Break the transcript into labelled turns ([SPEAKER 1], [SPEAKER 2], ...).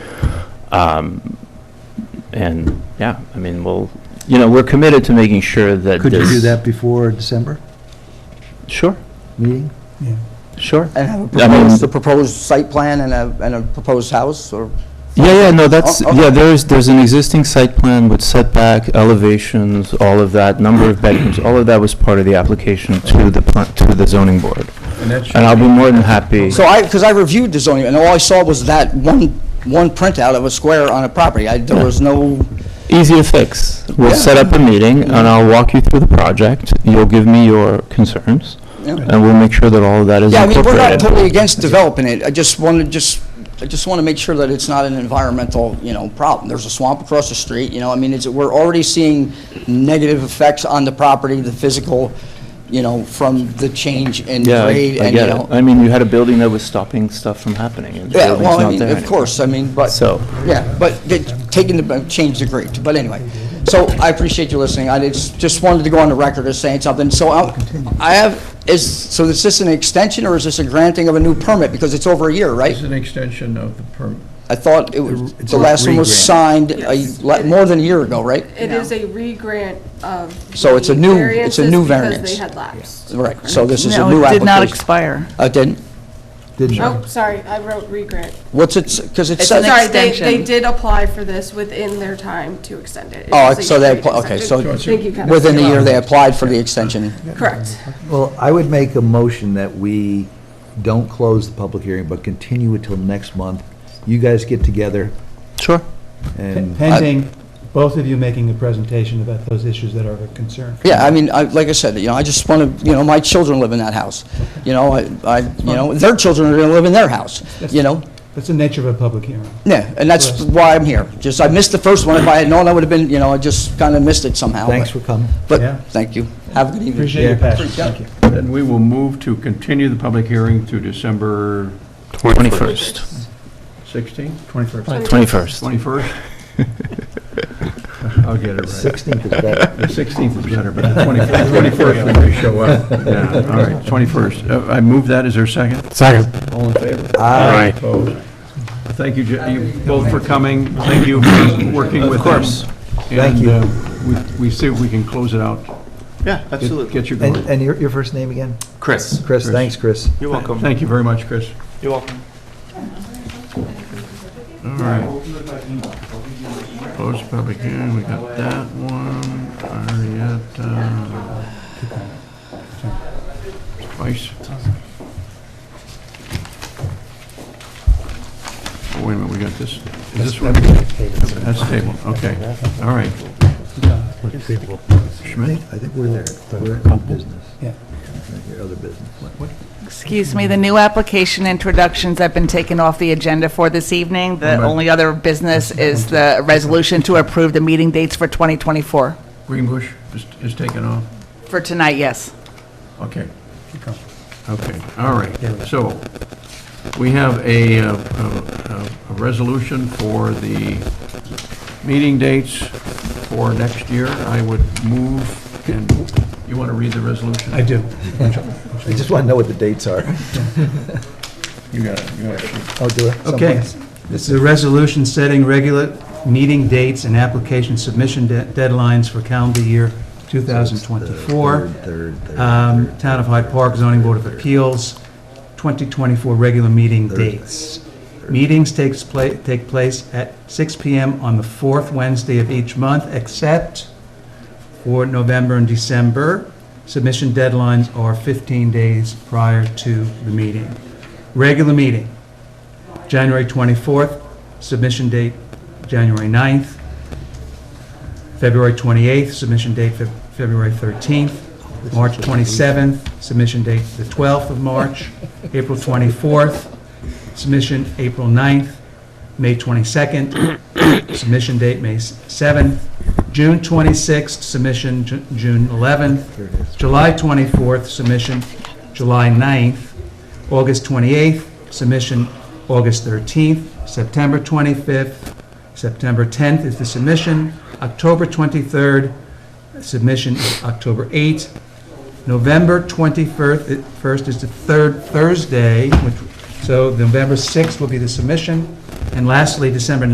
[SPEAKER 1] Um, And, yeah, I mean, we'll, you know, we're committed to making sure that
[SPEAKER 2] Could you do
[SPEAKER 1] this-
[SPEAKER 2] that before December
[SPEAKER 1] Sure,
[SPEAKER 2] meeting? Yeah.
[SPEAKER 1] sure.
[SPEAKER 3] And have a
[SPEAKER 1] I mean-
[SPEAKER 3] proposed, the proposed site plan and a, and a proposed house, or,
[SPEAKER 1] Yeah, yeah, no, that's,
[SPEAKER 3] Oh, okay.
[SPEAKER 1] yeah, there's, there's an existing site plan with setback, elevations, all of that, number of bedrooms, all of that was part of the application to the, pla- to the zoning board. And I'll be more than happy,
[SPEAKER 3] so I, because I reviewed the zoning, and all I saw was that one, one printout of a square on a property. I, there was no,
[SPEAKER 1] easy to fix. We'll
[SPEAKER 3] Yeah.
[SPEAKER 1] set up a meeting, and I'll walk you through the project, you'll give me your concerns,
[SPEAKER 3] Yeah.
[SPEAKER 1] and we'll make sure that all of that is
[SPEAKER 3] yeah, I mean, we're not
[SPEAKER 1] incorporated.
[SPEAKER 3] totally against developing it, I just wanted, just, I just want to make sure that it's not an environmental, you know, problem. There's a swamp across the street, you know, I mean, it's, we're already seeing negative effects on the property, the physical, you know, from the change in
[SPEAKER 1] Yeah,
[SPEAKER 3] grade,
[SPEAKER 1] I- I
[SPEAKER 3] and, you
[SPEAKER 1] get
[SPEAKER 3] know.
[SPEAKER 1] it. I mean, you had a building that was stopping stuff from happening, and the
[SPEAKER 3] Yeah,
[SPEAKER 1] building's
[SPEAKER 3] well, I
[SPEAKER 1] not
[SPEAKER 3] mean,
[SPEAKER 1] there
[SPEAKER 3] of
[SPEAKER 1] anymore.
[SPEAKER 3] course, I mean, but,
[SPEAKER 1] So-
[SPEAKER 3] yeah, but the- taking the, uh, change the grade, but anyway. So I appreciate you listening, I just, just wanted to go on the record as saying something. So I, I have, is, so is this an extension or is this a granting of a new permit? Because it's over a year, right?
[SPEAKER 4] It's an extension of the permit.
[SPEAKER 3] I thought it was,
[SPEAKER 2] It's
[SPEAKER 3] the
[SPEAKER 2] a
[SPEAKER 3] last one was
[SPEAKER 2] re-grant.
[SPEAKER 3] signed a,
[SPEAKER 5] Yes.
[SPEAKER 3] le- more than a year ago, right?
[SPEAKER 5] It is a re-grant of.
[SPEAKER 3] So it's a
[SPEAKER 5] the
[SPEAKER 3] new- it's a new
[SPEAKER 5] variances
[SPEAKER 3] variance.
[SPEAKER 5] Because they had lapsed.
[SPEAKER 3] Right, so this is a
[SPEAKER 6] No,
[SPEAKER 3] new application.
[SPEAKER 6] it did not expire.
[SPEAKER 3] Uh, didn't,
[SPEAKER 5] Oh, sorry, I wrote re-grant.
[SPEAKER 3] what's it, because it
[SPEAKER 6] It's
[SPEAKER 3] says.
[SPEAKER 6] an
[SPEAKER 5] Sorry, they,
[SPEAKER 6] extension.
[SPEAKER 5] they did apply for this within their time to extend it. It
[SPEAKER 3] Oh,
[SPEAKER 5] was a
[SPEAKER 3] so they
[SPEAKER 5] year-to-year
[SPEAKER 3] appl- okay,
[SPEAKER 5] extension.
[SPEAKER 3] so
[SPEAKER 5] Thank you, Kevin.
[SPEAKER 3] Within a year, they applied for the extension.
[SPEAKER 5] Correct.
[SPEAKER 2] Well, I would make a motion that we don't close the public hearing, but continue it till next month. You guys get together
[SPEAKER 1] Sure.
[SPEAKER 2] and.
[SPEAKER 7] Pending both of you making a presentation about those issues that are of concern.
[SPEAKER 3] Yeah, I mean, I, like I said, you know, I just want to, you know, my children live in that house. You know, I, I, you know, their children are going to live in their house, you know?
[SPEAKER 7] That's the nature of a public hearing.
[SPEAKER 3] Yeah, and that's why I'm here. Just, I missed the first one. If I had known, I would have been, you know, I just kind of missed it somehow. but-
[SPEAKER 2] Thanks for coming.
[SPEAKER 7] Yeah.
[SPEAKER 3] But, thank you. Have a good evening.
[SPEAKER 7] Appreciate your passion, thank you.
[SPEAKER 4] Then we will move to continue the public hearing to December
[SPEAKER 1] 21st.
[SPEAKER 4] 16th,
[SPEAKER 7] 21st.
[SPEAKER 1] 21st.
[SPEAKER 4] 21st? I'll get it right.
[SPEAKER 2] Sixteenth is better.
[SPEAKER 4] The 16th is better, but the 21st 21st when we show up. Yeah, all right, 21st. Uh, I move that, is there a second?
[SPEAKER 8] Second.
[SPEAKER 4] All in favor?
[SPEAKER 2] Aye.
[SPEAKER 4] Opposed? Thank you, Je- you both for coming, thank you for working with us. Of course.
[SPEAKER 2] Thank you.
[SPEAKER 4] And uh, we we see if we can close it out.
[SPEAKER 8] Yeah,
[SPEAKER 4] Get- Get you
[SPEAKER 2] And,
[SPEAKER 4] going.
[SPEAKER 2] and your, your first name again?
[SPEAKER 8] Chris,
[SPEAKER 2] Chris, thanks, Chris.
[SPEAKER 8] you're welcome.
[SPEAKER 4] Thank you very much, Chris.
[SPEAKER 8] You're welcome.
[SPEAKER 4] All right. Close public hearing, we got that one, Arietta. Spice. Oh, Wait a minute, we got this, is this one? That's table, okay, all right. Schmidt?
[SPEAKER 2] I think we're there. We're in new business.
[SPEAKER 7] Yeah.
[SPEAKER 2] Your other business.
[SPEAKER 6] Excuse me, the new application introductions have been taken off the agenda for this evening. The
[SPEAKER 4] Right.
[SPEAKER 6] only other business is the resolution to approve the meeting dates for 2024.
[SPEAKER 4] Greenbush is, is taken off,
[SPEAKER 6] For tonight, yes.
[SPEAKER 4] okay.
[SPEAKER 7] Keep going.
[SPEAKER 4] Okay, all right. So, we have a, uh, a a- a resolution for the meeting dates for next year. I would move, and you want to read the resolution?
[SPEAKER 7] I do.
[SPEAKER 2] I just want to know what the dates are.
[SPEAKER 4] You got it, you got it.
[SPEAKER 2] Oh, do it.
[SPEAKER 7] Okay. This is a resolution setting regular meeting dates and application submission de- deadlines for calendar year 2024.
[SPEAKER 2] Third, third, third.
[SPEAKER 7] Um, Town of Hyde Park Zoning Board of Appeals, 2024 regular meeting dates. Meetings takes pla, take place at 6 PM on the fourth Wednesday of each month, except for November and December. Submission deadlines are 15 days prior to the meeting. Regular meeting, January 24th, submission date January 9th. February 28th, submission date Feb- February 13th. March 27th, submission date the 12th of March. April 24th, submission April 9th. May 22nd, submission date May 7th. June 26th, submission Ju- June 11th. July 24th, submission July 9th. August 28th, submission August 13th. September 25th, September 10th is the submission. October 23rd, submission is October 8th. November 21st i- first is the third Thursday, which, so November 6th will be the submission. And lastly, December